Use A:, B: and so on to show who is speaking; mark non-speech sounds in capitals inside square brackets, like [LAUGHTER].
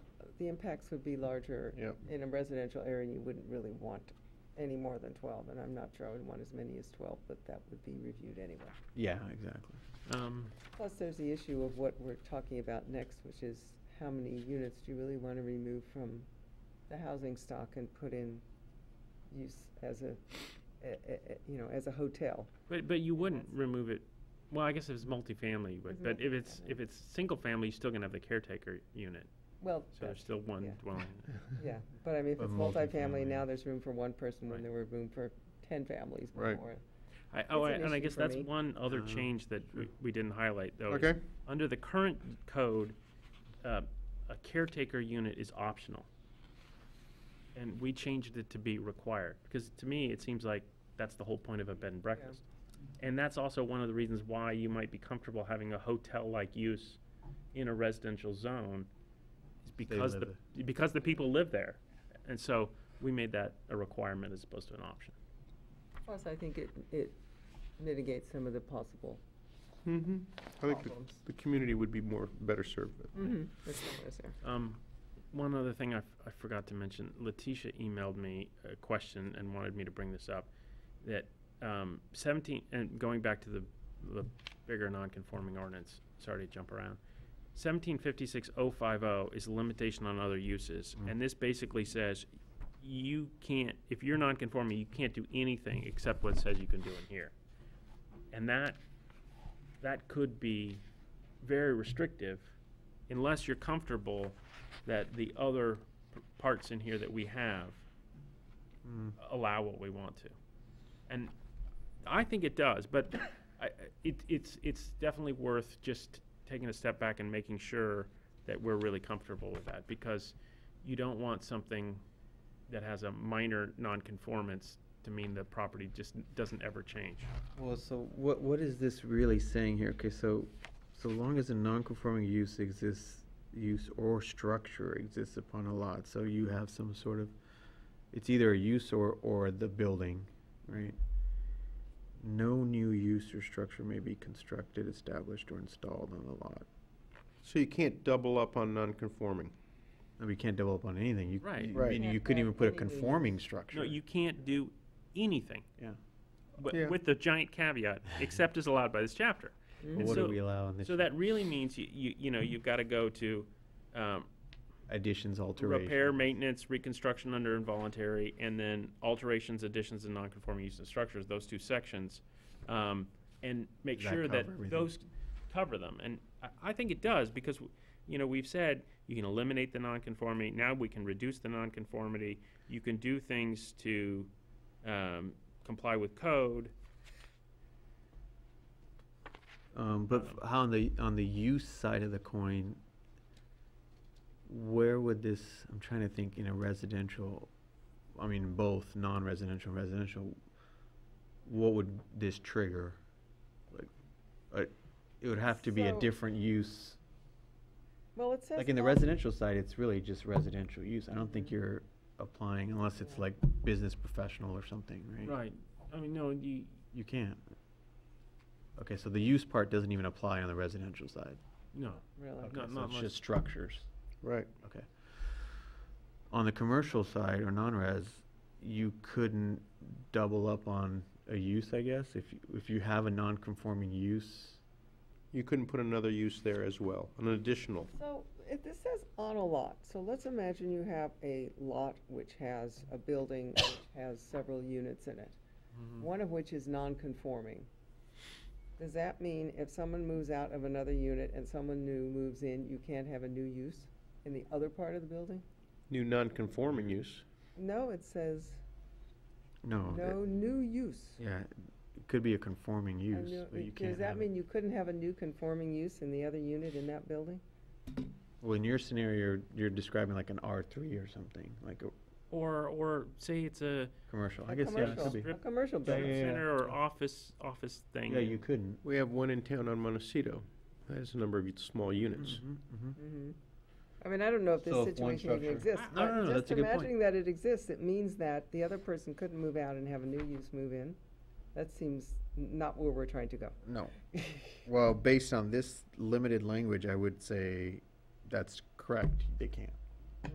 A: the impacts would be larger
B: Yep.
A: in a residential area, and you wouldn't really want any more than twelve, and I'm not sure I would want as many as twelve, but that would be reviewed anyway.
C: Yeah, exactly.
B: Um,
A: Plus, there's the issue of what we're talking about next, which is how many units do you really want to remove from the housing stock and put in use as a, a- a- a- you know, as a hotel?
B: But, but you wouldn't
A: That's-
B: remove it, well, I guess if it's multifamily, you would,
A: It's
B: but if it's,
A: multifamily.
B: if it's single family, you're still gonna have the caretaker unit,
A: Well,
B: so there's
A: that's-
B: still one
A: yeah.
B: dwelling.
A: [LAUGHS] yeah, but I mean, if
C: But
A: it's multifamily,
C: multifamily.
A: now there's room for one person when
B: Right.
A: there were room for ten families
B: Right.
A: before.
B: I, oh,
A: It's
B: I-
A: an
B: and I
A: issue
B: guess
A: for
B: that's
A: me.
B: one other
C: Oh,
B: change that we,
C: sure.
B: we didn't highlight though. is
D: Okay.
B: Under the current code, uh, a caretaker unit is optional. And we changed it to be required, because to me, it seems like that's the whole point of a bed and breakfast. And that's also one of the reasons why you might be comfortable having a hotel-like use in a residential zone, is
C: They
B: because
C: live
B: the, because the people live there. And so, we made that a requirement as opposed to an option.
A: Plus, I think it, it mitigates some of the possible
D: Mm-hmm. I think the,
A: Problems.
D: the community would be more, better served with.
A: that's not what I was there.
B: Um, one other thing I, f- I forgot to mention, Letitia emailed me a question and wanted me to bring this up, that, um, seventeen, and going back to the, the bigger non-conforming ordinance, sorry to jump around. Seventeen fifty-six oh five oh is a limitation on other uses,
C: Mm.
B: and this basically says, you can't, if you're non-conforming, you can't do anything except what it says you can do in here. And that, that could be very restrictive unless you're comfortable that the other p- parts in here that we have
C: Mm.
B: allow what we want to. And I think it does, but I, I- it, it's, it's definitely worth just taking a step back and making sure that we're really comfortable with that, because you don't want something that has a minor nonconformance to mean the property just doesn't ever change.
C: Well, so what, what is this really saying here? Okay, so, so long as a non-conforming use exists, use or structure exists upon a lot, so you have some sort of, it's either a use or, or the building, right? No new use or structure may be constructed, established, or installed on the lot.
D: So you can't double up on non-conforming.
C: I mean, you can't develop on anything, you,
B: Right.
C: you- I
D: Right.
C: mean, you
A: Can't
C: couldn't
A: add
C: even put a
A: any new use.
C: conforming structure.
B: No, you can't do anything,
C: Yeah.
B: but
D: Yeah.
B: with the giant caveat, except as allowed by this chapter.
C: But
B: And
C: What do
B: so-
C: we allow in this?
B: So that really means you, you, you know, you've gotta go to, um,
C: Additions, alterations.
B: repair, maintenance, reconstruction under involuntary, and then alterations, additions, and nonconforming uses of structures, those two sections. Um, and make
C: Does that
B: sure that
C: cover everything?
B: those cover them, and I, I think it does, because, w- you know, we've said, you can eliminate the nonconformity, now we can reduce the nonconformity, you can do things to, um, comply with code,
C: Um, but f- how on the, on the use side of the coin, where would this, I'm trying to think, in a residential, I mean, both non-residential, and residential, what would this trigger? Like, uh, it would have to be a
A: So-
C: different use.
A: Well, it says.
C: Like in the
A: all-
C: residential side, it's really just residential use. I don't think
A: Mhm.
C: you're applying unless it's
A: Yeah.
C: like business professional or something, right?
B: right, I mean, no, you,
C: You can't. Okay, so the use part doesn't even apply on the residential side.
B: no,
A: Really.
C: Okay,
B: Not-
C: so
B: not
C: it's
B: much.
C: just structures.
D: Right.
C: Okay. On the commercial side or non-res, you couldn't double up on a use, I guess, if, you- if you have a non-conforming use.
D: You couldn't put another use there as well, an additional.
A: So if this says on a lot, so let's imagine you have a lot which has a building which has several units in it, one of which is non-conforming. Does that mean if someone moves out of another unit and someone new moves in, you can't have a new use in the other part of the building?
D: New non-conforming use.
A: No, it says
C: No. that-
A: no new use.
C: Yeah, it could be a conforming
A: A
C: use,
A: new-
C: but you
A: Does
C: can't
A: that
C: have it.
A: mean you couldn't have a new conforming use in the other unit in that building?
C: Well, in your scenario, you're- you're describing like an R3 or something, like a
B: or, or say it's a
C: commercial. I
A: A
C: guess, yeah, it could
A: commercial-
C: be.
A: A commercial
C: Yeah,
A: building.
C: yeah, yeah.
B: center or office, office thing.
C: Yeah, you couldn't.
D: We have one in town on Montecito. That is a number of small units.
C: Mhm, mhm.
A: Mhm. I mean, I don't know if this
C: So if one
A: situation even
C: structure-
A: exists.
C: No, no,
A: but
C: no,
A: just
C: that's a good point.
A: Imagining that it exists, it means that the other person couldn't move out and have a new use move in. That seems n- not where we're trying to go. [LAUGHS]
C: No. Well, based on this limited language, I would say that's correct. They can't.